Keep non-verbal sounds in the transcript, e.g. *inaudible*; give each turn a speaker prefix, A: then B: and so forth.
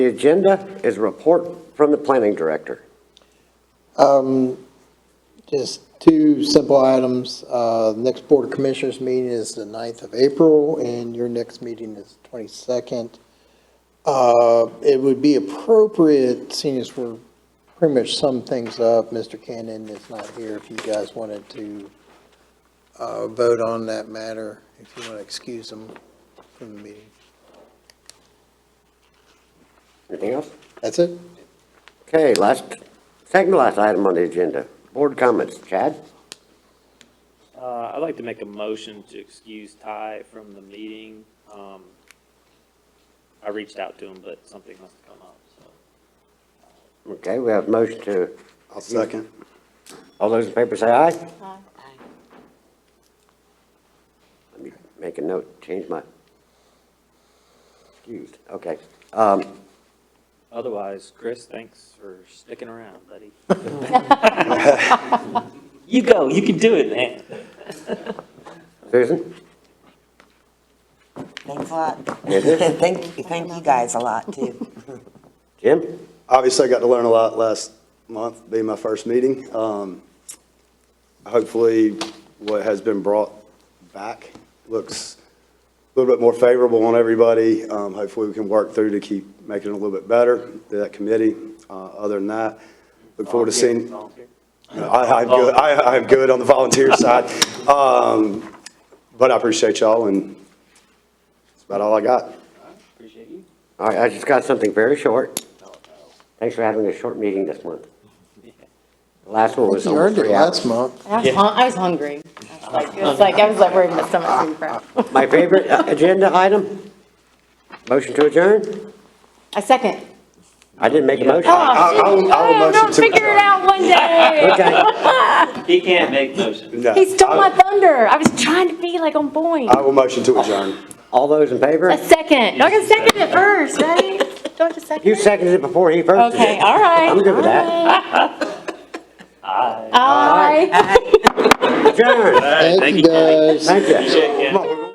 A: The agenda is a report from the planning director.
B: Um, just two simple items. Uh, next Board of Commissioners meeting is the 9th of April, and your next meeting is twenty-second. Uh, it would be appropriate, seeing as we're pretty much sum things up, Mr. Cannon is not here, if you guys wanted to uh, vote on that matter, if you want to excuse him from the meeting.
A: Anything else?
B: That's it?
A: Okay, last, second to last item on the agenda, board comments. Chad?
C: Uh, I'd like to make a motion to excuse Ty from the meeting. Um, I reached out to him, but something must have come up, so.
A: Okay, we have a motion to,
D: I'll second.
A: all those in favor say aye? Aye. Let me make a note, change my, excused, okay. Um,
C: Otherwise, Chris, thanks for sticking around, buddy. You go, you can do it, man.
A: Susan?
E: Thanks a lot.
A: Is it?
E: *laughs* Thank, thank you guys a lot, too.
A: Jim?
D: Obviously, I got to learn a lot last month, being my first meeting. Um, Hopefully, what has been brought back looks a little bit more favorable on everybody. Um, Hopefully, we can work through to keep making it a little bit better, that committee. Uh, Other than that, look forward to seeing.
C: Volunteer.
D: I, I'm good, I, I'm good on the volunteer side. Um, But I appreciate y'all, and that's about all I got.
C: Appreciate you.
A: All right, I just got something very short. Thanks for having a short meeting this
B: *laughs*
A: month. The Last one was
B: You
A: almost
B: earned it
A: three hours.
B: last month.
F: I was, hun- I was hungry. I was like- It was like, I was like, where did my stomach come from?
A: My favorite uh, agenda item? Motion to adjourn?
F: A second.
A: I didn't make a motion.
F: Oh,
D: I- I will- I will
F: shoot.
D: motion
F: Oh,
D: to-
F: Figure it out one day.
A: Okay,
C: He can't make motions.
D: No,
F: He stole my
D: I
F: thunder. I was trying to be like on point.
D: I will motion to adjourn.
A: all those in
F: A
A: favor?
F: second. Y'all can second it first, right? Do I have to second
A: You
F: it?
A: seconded it before he first did.
F: Okay, all right.
A: I'm good with that.
F: Aye.
A: Adjourn,
B: Thank you, guys.
A: thank you.
C: Appreciate you.